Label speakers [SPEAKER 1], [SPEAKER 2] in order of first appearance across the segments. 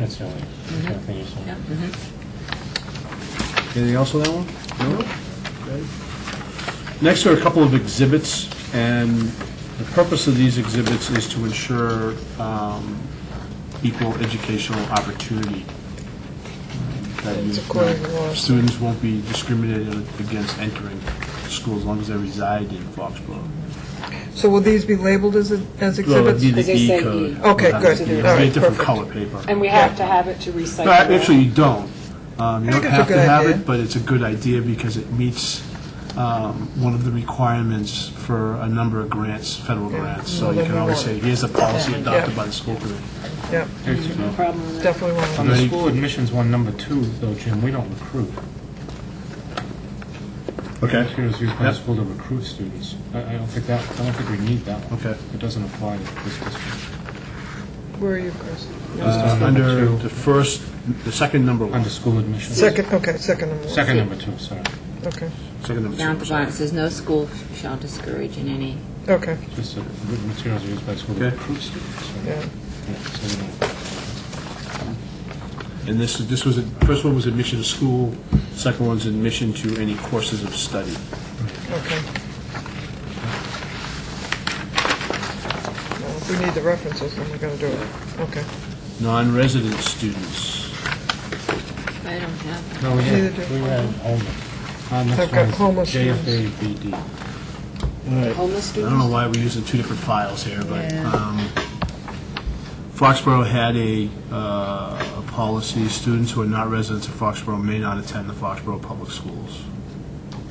[SPEAKER 1] That's the only
[SPEAKER 2] Mm-hmm.
[SPEAKER 1] the only thing you saw.
[SPEAKER 3] Yeah.
[SPEAKER 4] Anything else on that one? No? Okay. Next are a couple of exhibits, and the purpose of these exhibits is to ensure um, equal educational opportunity. That you-
[SPEAKER 5] It's according to law.
[SPEAKER 4] Students won't be discriminated against entering school as long as they reside in Foxborough.
[SPEAKER 2] So will these be labeled as, a- as
[SPEAKER 4] Well, it'd
[SPEAKER 2] exhibits?
[SPEAKER 4] be the
[SPEAKER 3] As they
[SPEAKER 4] E
[SPEAKER 3] say, E.
[SPEAKER 4] code.
[SPEAKER 2] Okay,
[SPEAKER 4] Uh,
[SPEAKER 2] good.
[SPEAKER 4] it'd be a
[SPEAKER 2] All right,
[SPEAKER 4] different
[SPEAKER 2] perfect.
[SPEAKER 4] color paper.
[SPEAKER 3] And we have to have it to recycle.
[SPEAKER 4] No,
[SPEAKER 3] that.
[SPEAKER 4] Actually, you don't. Um, You don't
[SPEAKER 2] I think it's a
[SPEAKER 4] have to
[SPEAKER 2] good
[SPEAKER 4] have
[SPEAKER 2] idea.
[SPEAKER 4] it, but it's a good idea because it meets um, one of the requirements for a number of grants, federal grants. So
[SPEAKER 2] well,
[SPEAKER 4] you
[SPEAKER 2] then
[SPEAKER 4] can
[SPEAKER 2] we
[SPEAKER 4] always
[SPEAKER 2] want
[SPEAKER 4] say,
[SPEAKER 2] it.
[SPEAKER 4] here's a policy
[SPEAKER 2] Yeah.
[SPEAKER 4] adopted
[SPEAKER 2] Yeah.
[SPEAKER 4] by the school committee.
[SPEAKER 2] Yep,
[SPEAKER 3] No problem with that.
[SPEAKER 2] definitely
[SPEAKER 1] On
[SPEAKER 2] one.
[SPEAKER 1] the
[SPEAKER 4] Ready?
[SPEAKER 1] school admissions one, number two, though, Jim, we don't recruit.
[SPEAKER 4] Uh,
[SPEAKER 1] Computers used by the
[SPEAKER 4] Yep.
[SPEAKER 1] school to recruit students. I I don't think that, I don't think we need that one.
[SPEAKER 4] Okay.
[SPEAKER 1] It doesn't apply to this district.
[SPEAKER 2] Where are you, Chris?
[SPEAKER 4] Uh,
[SPEAKER 1] Just number
[SPEAKER 4] Under
[SPEAKER 1] two,
[SPEAKER 4] the first, the second number one.
[SPEAKER 1] Under school admissions.
[SPEAKER 2] Second, okay, second number. one.
[SPEAKER 1] Second number two, sorry.
[SPEAKER 2] Okay,
[SPEAKER 4] Second number two, I'm sorry.
[SPEAKER 5] Noncompliance says no school shall discourage in any,
[SPEAKER 2] okay,
[SPEAKER 1] Just the materials used by the school to
[SPEAKER 4] Okay.
[SPEAKER 1] recruit students. so-
[SPEAKER 2] yeah.
[SPEAKER 1] Yeah, so we don't-
[SPEAKER 4] And this, this was, first one was admission to school, second one's admission to any courses of study.
[SPEAKER 2] Okay. Well, if we need the references, then we're going to do it. Okay.
[SPEAKER 4] Non-resident students.
[SPEAKER 5] I don't have,
[SPEAKER 1] No, we had,
[SPEAKER 2] Neither do
[SPEAKER 1] we
[SPEAKER 2] I.
[SPEAKER 1] had homeless. Uh, next
[SPEAKER 2] I've got
[SPEAKER 1] one is
[SPEAKER 2] homeless students.
[SPEAKER 1] JFABD.
[SPEAKER 3] Homeless
[SPEAKER 4] I don't know
[SPEAKER 3] students?
[SPEAKER 4] why we're using two different files here, but
[SPEAKER 5] Yeah.
[SPEAKER 4] um, Foxborough had a, uh, a policy, students who are not residents of Foxborough may not attend the Foxborough Public Schools.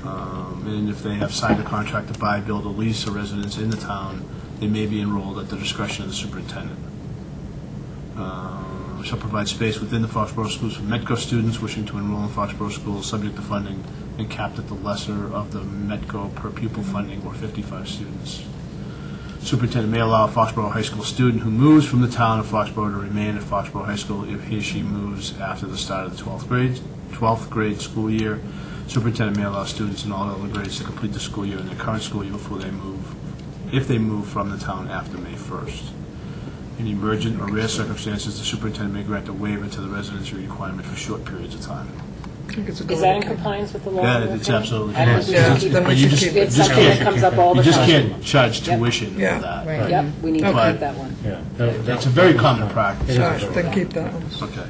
[SPEAKER 4] Um, And if they have signed a contract to buy, build, or lease a residence in the town, they may be enrolled at the discretion of the superintendent. Um, Shall provide space within the Foxborough schools for Metco students wishing to enroll in Foxborough schools, subject to funding and capped at the lesser of the Metco per pupil funding or 55 students. Superintendent may allow a Foxborough High School student who moves from the town of Foxborough to remain at Foxborough High School if he or she moves after the start of the 12th grade, 12th grade school year. Superintendent may allow students in all other grades to complete the school year in their current school year before they move, if they move from the town after May 1st. In emergent or rare circumstances, the superintendent may grant a waiver to the residency requirement for short periods of time.
[SPEAKER 2] I think it's a good
[SPEAKER 3] Is that in
[SPEAKER 2] idea.
[SPEAKER 3] compliance with the law?
[SPEAKER 4] Yeah, it's absolutely.
[SPEAKER 3] I think we
[SPEAKER 2] Yeah,
[SPEAKER 3] should keep
[SPEAKER 2] then we
[SPEAKER 4] But
[SPEAKER 3] it.
[SPEAKER 4] you
[SPEAKER 2] should
[SPEAKER 4] just-
[SPEAKER 2] keep
[SPEAKER 3] It's
[SPEAKER 4] just
[SPEAKER 3] something
[SPEAKER 4] can't-
[SPEAKER 3] that comes up uh, all
[SPEAKER 4] You
[SPEAKER 3] the
[SPEAKER 4] just
[SPEAKER 3] time.
[SPEAKER 4] can't charge
[SPEAKER 3] Yep.
[SPEAKER 4] tuition for
[SPEAKER 2] Yeah.
[SPEAKER 4] that.
[SPEAKER 5] right.
[SPEAKER 3] Yep, we need to
[SPEAKER 2] Okay.
[SPEAKER 3] keep that one.
[SPEAKER 1] Yeah. that- that-
[SPEAKER 4] It's a very common practice.
[SPEAKER 2] All right, then keep that one.
[SPEAKER 4] Okay.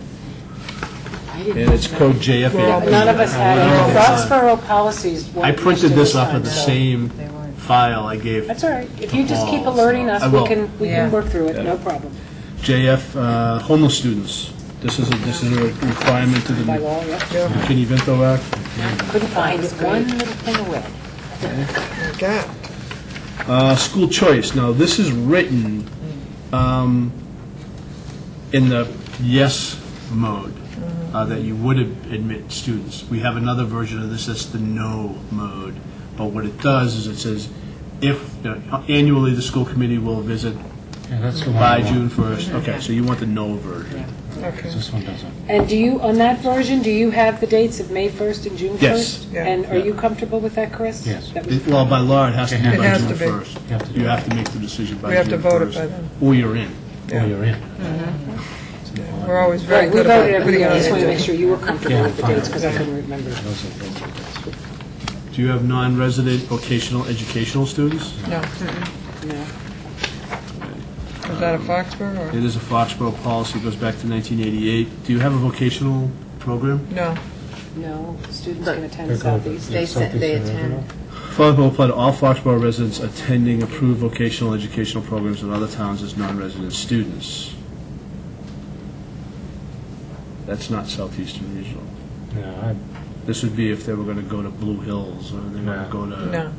[SPEAKER 5] I didn't.
[SPEAKER 4] And it's code JFA.
[SPEAKER 3] None of us had
[SPEAKER 4] Yeah.
[SPEAKER 3] it. Foxborough policies. weren't
[SPEAKER 4] I printed
[SPEAKER 3] used
[SPEAKER 4] this
[SPEAKER 3] in
[SPEAKER 4] off of
[SPEAKER 3] time,
[SPEAKER 4] the
[SPEAKER 3] so-
[SPEAKER 4] same file I gave.
[SPEAKER 3] That's all right. If you just keep
[SPEAKER 4] Balls.
[SPEAKER 3] alerting us,
[SPEAKER 4] I
[SPEAKER 3] we
[SPEAKER 4] will.
[SPEAKER 3] can, we
[SPEAKER 5] Yeah.
[SPEAKER 3] can work through it, no problem.
[SPEAKER 4] JF, uh, homeless students. This is, a this is a requirement to
[SPEAKER 3] By
[SPEAKER 4] the
[SPEAKER 3] law, yeah.
[SPEAKER 2] Yeah,
[SPEAKER 4] McKinney Vento Act.
[SPEAKER 3] Couldn't find it. One little thing away.
[SPEAKER 2] my God.
[SPEAKER 4] Uh, School choice. Now, this is written um, in the yes mode, uh, that you would ad- admit students. We have another version of this that's the no mode. But what it does is it says, if, uh, annually, the school committee will visit
[SPEAKER 1] Yeah, that's the one. I
[SPEAKER 4] by
[SPEAKER 1] want.
[SPEAKER 4] June 1st. Okay, so you want the no version.
[SPEAKER 2] Okay.
[SPEAKER 1] 'Cause This one doesn't.
[SPEAKER 3] And do you, on that version, do you have the dates of May 1st and June 1st?
[SPEAKER 4] Yes.
[SPEAKER 2] Yeah.
[SPEAKER 3] And are
[SPEAKER 4] Yeah.
[SPEAKER 3] you comfortable with that, Chris?
[SPEAKER 1] Yes.
[SPEAKER 3] That was-
[SPEAKER 4] It- Well, by law, it has to be
[SPEAKER 1] It
[SPEAKER 4] by
[SPEAKER 2] has
[SPEAKER 4] June
[SPEAKER 2] to be.
[SPEAKER 4] 1st. You have to make the decision by June 1st.
[SPEAKER 2] We have to vote it by then.
[SPEAKER 4] Or you're in.
[SPEAKER 1] Oh, you're in.
[SPEAKER 5] Mm-hmm.
[SPEAKER 2] We're always very
[SPEAKER 3] Right, we
[SPEAKER 2] good about
[SPEAKER 3] voted every
[SPEAKER 2] putting
[SPEAKER 3] year,
[SPEAKER 2] on
[SPEAKER 3] I just want to
[SPEAKER 2] the
[SPEAKER 3] make
[SPEAKER 2] agenda.
[SPEAKER 3] sure you were comfortable
[SPEAKER 1] Yeah,
[SPEAKER 3] with the
[SPEAKER 1] fine.
[SPEAKER 3] dates, because I couldn't remember.
[SPEAKER 1] Those are- those are- that's-
[SPEAKER 4] Do you have non-resident vocational educational students?
[SPEAKER 2] No, mm-mm. is that a Foxborough or?
[SPEAKER 4] It is a Foxborough policy, goes back to 1988. Do you have a vocational program?
[SPEAKER 2] No,
[SPEAKER 3] No, students can
[SPEAKER 1] they're
[SPEAKER 3] attend
[SPEAKER 1] called-
[SPEAKER 3] Southeast.
[SPEAKER 5] They
[SPEAKER 1] yeah,
[SPEAKER 5] said
[SPEAKER 1] Southeast
[SPEAKER 5] they
[SPEAKER 1] Regional.
[SPEAKER 5] attend.
[SPEAKER 4] Foxborough will apply to all Foxborough residents attending approved vocational educational programs in other towns as non-resident students. That's not Southeastern Regional.
[SPEAKER 1] No, I-
[SPEAKER 4] This would be if they were going to go to Blue Hills, or they were going
[SPEAKER 1] No.
[SPEAKER 4] to go to...
[SPEAKER 2] no.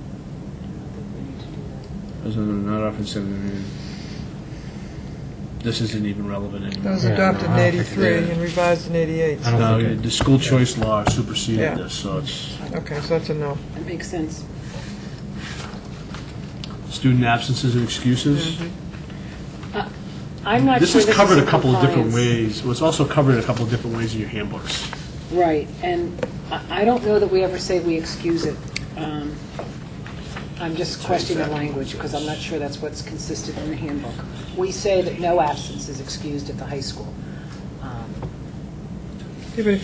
[SPEAKER 4] Those are not often said, I mean, This isn't even relevant
[SPEAKER 2] That
[SPEAKER 4] anymore.
[SPEAKER 2] was
[SPEAKER 1] Yeah, no,
[SPEAKER 2] adopted in
[SPEAKER 1] I don't think
[SPEAKER 2] '83
[SPEAKER 4] it is.
[SPEAKER 2] and revised in '88.
[SPEAKER 1] I don't
[SPEAKER 4] No,
[SPEAKER 1] think it-
[SPEAKER 4] the school choice law superseded
[SPEAKER 2] Yeah.
[SPEAKER 4] this, so it's,
[SPEAKER 2] Okay, so that's a no.
[SPEAKER 3] That makes sense.
[SPEAKER 4] student absences and excuses.
[SPEAKER 2] Mm-hmm.
[SPEAKER 3] I'm not sure
[SPEAKER 4] This
[SPEAKER 3] this is
[SPEAKER 4] is covered a couple of different
[SPEAKER 3] compliance.
[SPEAKER 4] ways, Well, it's also covered a couple of different ways in your handbooks.
[SPEAKER 3] Right, and I I don't know that we ever say we excuse it. Um, I'm just questioning the language, because I'm not sure that's what's consistent in the handbook. We say that no absence is excused at the high school. Um,
[SPEAKER 2] Yeah, but if